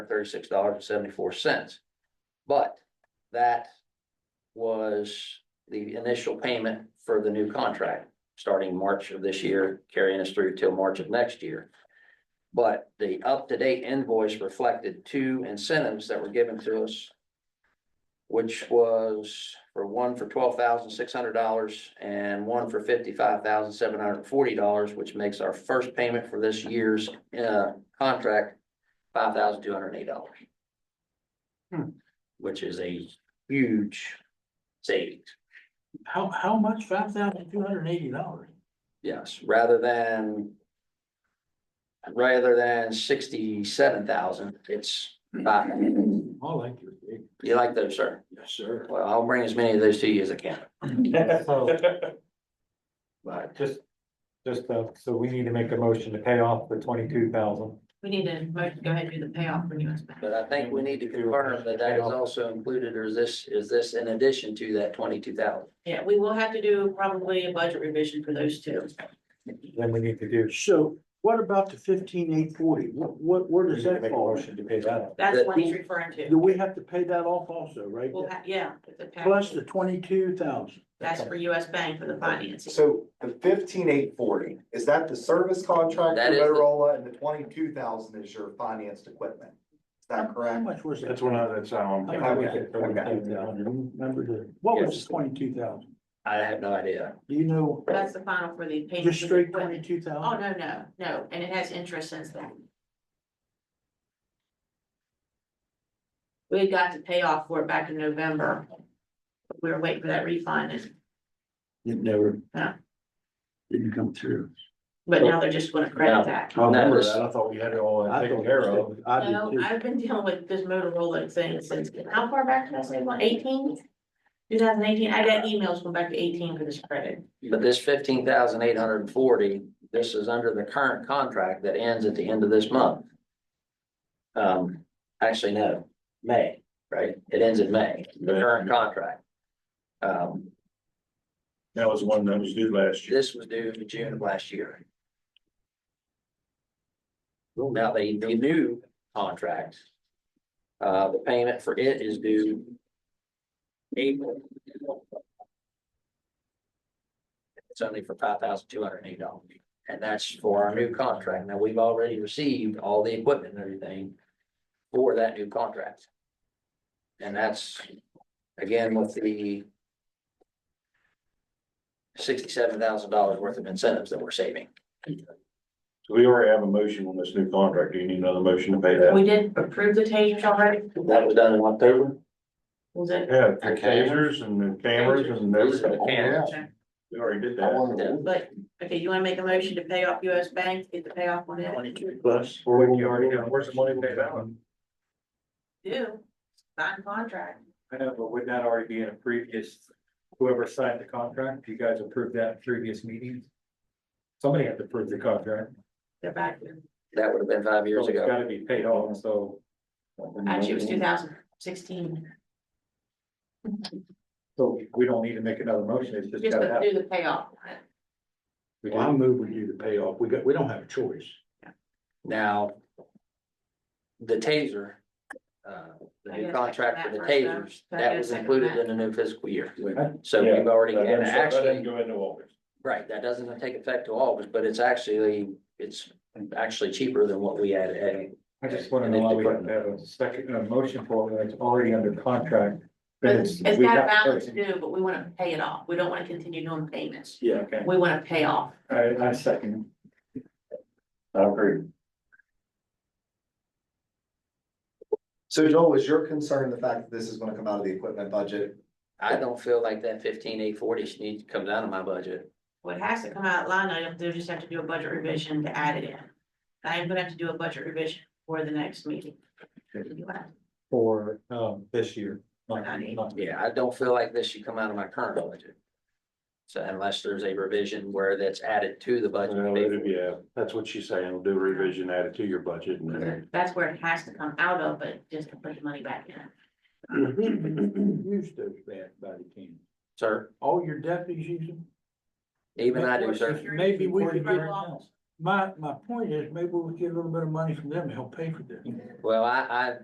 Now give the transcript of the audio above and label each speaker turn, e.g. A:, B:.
A: thirty-six dollars and seventy-four cents. But that was the initial payment for the new contract, starting March of this year, carrying us through till March of next year. But the up-to-date invoice reflected two incentives that were given to us. Which was for one for twelve thousand six hundred dollars and one for fifty-five thousand seven hundred and forty dollars, which makes our first payment for this year's uh contract. Five thousand two hundred and eight dollars.
B: Hmm.
A: Which is a huge savings.
B: How, how much? Five thousand two hundred and eighty dollars?
A: Yes, rather than. Rather than sixty-seven thousand, it's, five.
B: I like your gig.
A: you like those, sir?
B: Yes, sir.
A: Well, I'll bring as many of those to you as I can,
C: So
A: but
C: just, just, uh, so we need to make a motion to pay off the twenty-two thousand.
D: We need to vote- go ahead and do the payoff for US Bank.
A: But I think we need to confirm that that is also included, or is this, is this in addition to that twenty-two thousand?
D: Yeah, we will have to do probably a budget revision for those two.
C: Then we need to do.
B: So what about the fifteen eight forty? What, what, where
C: we need
B: does
C: to
B: that
C: Make a
B: fall?
C: motion to pay that off.
D: That's
A: That-
D: what he's referring
B: Do
D: to.
B: we have to pay that off also, right?
D: We'll ha- yeah. it's a package.
B: Plus the twenty-two thousand?
D: That's for US Bank for the financing.
E: So the fifteen eight forty, is that the service contract
A: That
E: for
A: is the-
E: Motorola and the twenty-two thousand is your financed equipment? Is that
B: How
E: correct?
B: much was it?
F: That's what I, that's how
B: How
F: I'm,
B: much was
E: Okay,
B: it? Remember the, what was the twenty-two thousand?
A: I have no idea.
B: Do you know,
D: That's the final for the payment.
B: just
D: for the
B: straight
D: equipment.
B: twenty-two
D: Oh,
B: thousand?
D: no, no, no. And it has interest since then. We got to pay off for it back in November. We were waiting for that refund and,
B: It never.
D: No.
B: Didn't come through.
D: but now they're just gonna
A: No.
D: credit that.
C: I
A: No,
C: remember
A: this-
C: that. I thought we had it all uh,
B: I
C: taken
B: thought-
C: care of.
B: I did
D: No,
B: too.
D: I've been dealing with this Motorola thing since, how far back did I say, one, eighteen? Two thousand eighteen, I got emails going back to eighteen for this credit.
A: But this fifteen thousand eight hundred and forty, this is under the current contract that ends at the end of this month. Um, actually, no, May, right? It ends in May, the current contract. Um,
F: that was one that was due last year.
A: This was due in June of last year. Now, the, the new contract. Uh, the payment for it is due. April. It's only for five thousand two hundred and eight dollars, and that's for our new contract. Now, we've already received all the equipment and everything. For that new contract. And that's, again, with the sixty-seven thousand dollars worth of incentives that we're saving.
F: So we already have a motion on this new contract. Do you need another motion to pay that?
D: We did approve the tasers already,
A: That was done in October.
D: was it?
F: Yeah, the tasers and the cameras and
A: Those are the
F: everything.
A: cameras.
F: We already did that.
D: But, okay, you wanna make a motion to pay off US Bank, get the payoff on it?
B: Plus.
F: Or you already got, where's the money paid out?
D: Do, sign contract.
C: I know, but would that already be in a previous, whoever signed the contract, you guys approved that in previous meetings? Somebody had to approve the contract.
D: They're back,
A: That would have been five years
C: So it's
A: ago.
C: Gotta be paid off, so.
D: actually, it was two thousand sixteen,
C: So we don't need to make another motion, it's just
D: just
C: gotta
D: to
C: happen.
D: do the payoff on it.
C: We
B: Well, I move we do the payoff. We got, we don't have a choice.
A: Now. The taser. Uh, the
D: I
A: new
D: guess I
A: contract for
D: second
A: the
D: that first,
A: tasers,
D: though.
A: that was
D: Second,
A: included
D: second
A: in the new fiscal year.
C: Okay.
A: So
F: Yeah,
A: we've already,
F: That
A: and
F: didn't- that didn't
A: actually,
F: Go into August.
A: right, that doesn't take effect till August, but it's actually, it's actually cheaper than what we had. had.
C: I just wanna know why we have to have a second, a motion for it, when it's already under contract.
D: But
C: but
D: it's
C: it's- we
D: got a
C: have to-
D: balance due, but we wanna pay it off, we don't wanna continue doing payments,
C: Yeah, okay,
D: we wanna pay off.
C: I, I second.
F: I agree.
E: So Joel, is your concern the fact that this is gonna come out of the equipment budget?
A: I don't feel like that fifteen eight forty should need to come down to my budget.
D: Well, it has to come out line item, they'll just have to do a budget revision to add it in. I am gonna have to do a budget revision for the next meeting.
C: For, um, this year. not-
D: Honey.
C: not-
A: Yeah, I don't feel like this should come out of my current budget. So unless there's a revision where that's added to the
F: Well, it'll-
A: budget.
F: Yeah, that's what she's saying. We'll do a revision, add it to your budget and then.
D: That's where it has to come out of, but just to put the money back in.
B: Who Used those back by the can.
A: Sir,
B: All your deputies use them?
A: even I do, sir.
B: Maybe we could get, my, my point is, maybe we'll get a little bit of money from them, to help pay for this.
A: Well, I, I,